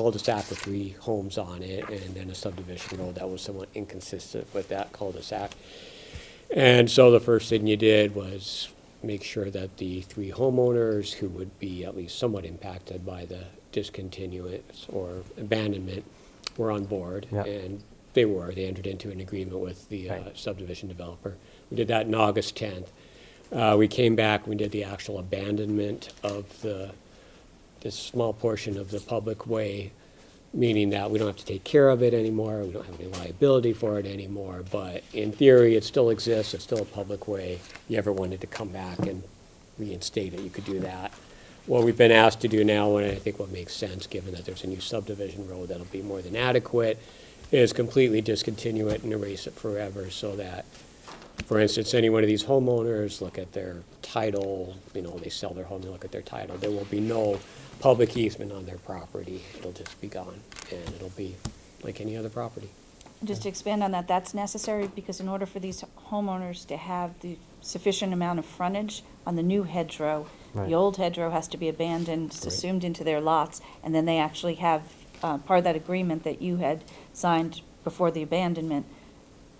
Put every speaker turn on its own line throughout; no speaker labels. cul-de-sac with three homes on it, and then a subdivision road that was somewhat inconsistent with that cul-de-sac. And so the first thing you did was make sure that the three homeowners who would be at least somewhat impacted by the discontinuance or abandonment were on board.
Yeah.
And they were, they entered into an agreement with the uh,
Right.
subdivision developer. We did that in August 10th. Uh, We came back, we did the actual abandonment of the, this small portion of the public way, meaning that we don't have to take care of it anymore, we don't have any liability for it anymore, but in theory, it still exists, it's still a public way. If you ever wanted to come back and reinstate it, you could do that. What we've been asked to do now, and I think what makes sense, given that there's a new subdivision road that'll be more than adequate, is completely discontinue it and erase it forever so that for instance, any one of these homeowners, look at their title, you know, they sell their home, they look at their title, there will be no public easement on their property, it'll just be gone, and it'll be like any other property.
Just to expand on that, that's necessary because in order for these homeowners to have the sufficient amount of frontage on the new hedgerow,
Right.
the old hedgerow has to be abandoned,
Right.
assumed into their lots, and then they actually have, uh, part of that agreement that you had signed before the abandonment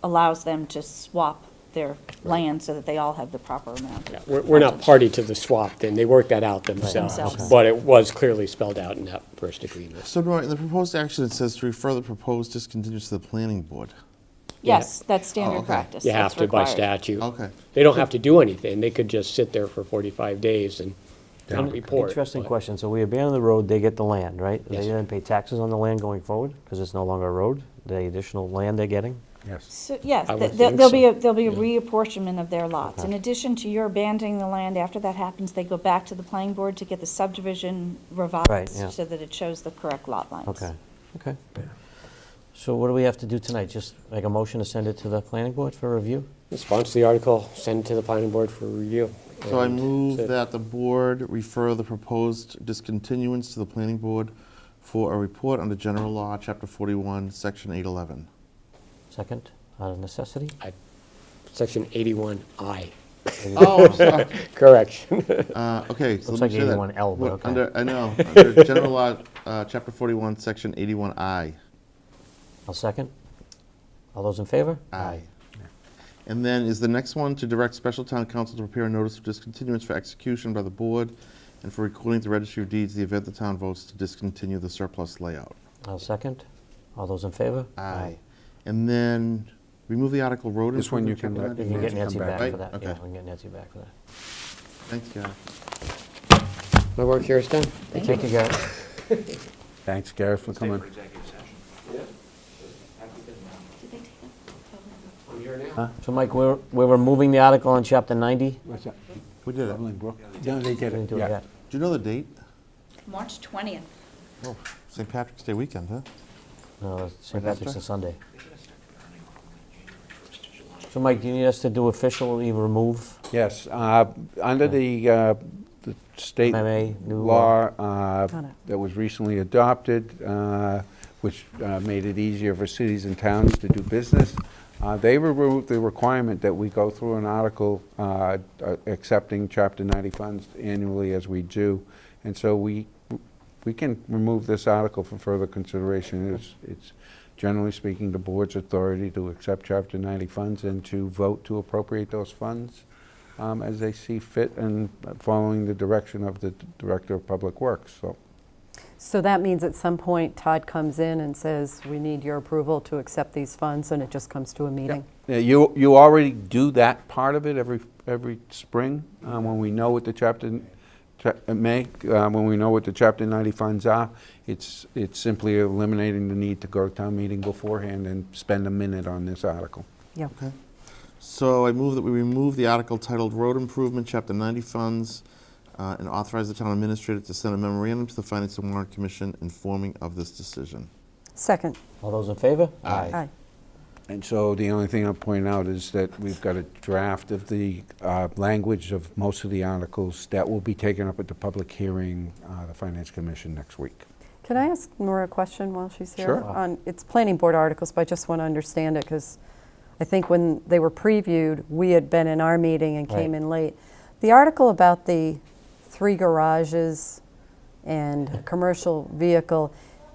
allows them to swap their land so that they all have the proper amount.
Yeah, We're, we're not party to the swap, then, they worked that out
Themselves.
themselves, but it was clearly spelled out in that first agreement.
So, Nora, in the proposed action, it says to refer the proposed discontinuance to the planning board.
Yes, that's
Oh,
standard
okay.
practice.
You have
That's
to by
required.
statute.
Okay.
They don't have to do anything, they could just sit there for forty-five days and not report.
Interesting
but-
question. So we abandon the road, they get the land, right? They
Yes.
then pay taxes on the land going forward because it's no longer a road, the additional land they're getting?
Yes.
So, yes,
I
th-
would
there-
think
there'll be,
so,
a- there'll be a
yeah.
reapportionment of their lots. In
Okay.
addition to your abandoning the land, after that happens, they go back to the planning board to get the subdivision
yeah.
revised so that it shows the correct lot lines.
Okay, okay. So what do we have to do tonight? Just make a motion to send it to the planning board for review?
Sponsor the article, send it to the planning board for review.
So I
and
move
that's it.
that the board refer the proposed discontinuance to the planning board for a report under general law, chapter 41, section 811.
Second, out of necessity?
I- Section eighty-one I,
Oh, I'm sorry.
correction.
Uh, Okay. so
Looks
let me
like
say that.
81L, but
What-
okay.
under- I know, under general law, uh, chapter 41, section 81I.
I'll second. All those in favor?
Aye. And then is the next one to direct special town council to prepare a notice of discontinuance for execution by the board and for recording at the registry of deeds the event the town votes to discontinue the surplus layout.
I'll second. All those in favor?
And then remove the article road.
This one you can
improvement,
let-
We
chapter
can get
Nancy, come
Nancy
back.
back
Right,
for that. Yeah,
okay.
we can get Nancy back for that.
91. Thanks, Gary.
My work here is done.
Thank you, Gary.
Thanks, Gareth, for coming.
So Mike, we're, we're removing the article on chapter 90?
What's that?
We did it. Do
Dublin Brook? No, they
We
did
didn't
it,
do it
yeah.
yet.
you know the date?
March 20th.
Oh, St. Patrick's Day weekend, huh?
No, it's St.
Right after?
Patrick's on Sunday. So Mike, do you need us to do officially remove?
Yes, uh, under the uh, the state
MMA new
law
law.
uh,
Got it.
that was recently adopted, uh, which uh, made it easier for cities and towns to do business, uh, they removed the requirement that we go through an article uh, uh, accepting Chapter 90 funds annually as we do. And so we, we can remove this article for further consideration. It's- It's, generally speaking, the board's authority to accept Chapter 90 funds and to vote to appropriate those funds um, as they see fit and following the direction of the Director of Public Works, so.
So that means at some point Todd comes in and says, we need your approval to accept these funds, and it just comes to a meeting?
Yeah, You, you already do that part of it every, every spring, um, when we know what the chapter, cha- uh, may, uh, when we know what the chapter ninety funds are. It's, it's simply eliminating the need to go to town meeting beforehand and spend a minute on this article.
Yeah.
Okay. So I move that we remove the article titled Road Improvement, Chapter 90 Funds, uh, and authorize the town administrator to send a memorandum to the Finance and Warrant Commission informing of this decision.
Second.
All those in favor?
Aye.
And so the only thing I'll point out is that we've got a draft of the uh, language of most of the articles that will be taken up at the public hearing, uh, the Finance Commission next week.
Can I ask Nora a question while she's here?
Sure.
On, it's planning board articles, but I just want to understand it, because I think when they were previewed, we had been in our meeting and came
Right.
in late. The article about the three garages and commercial vehicle,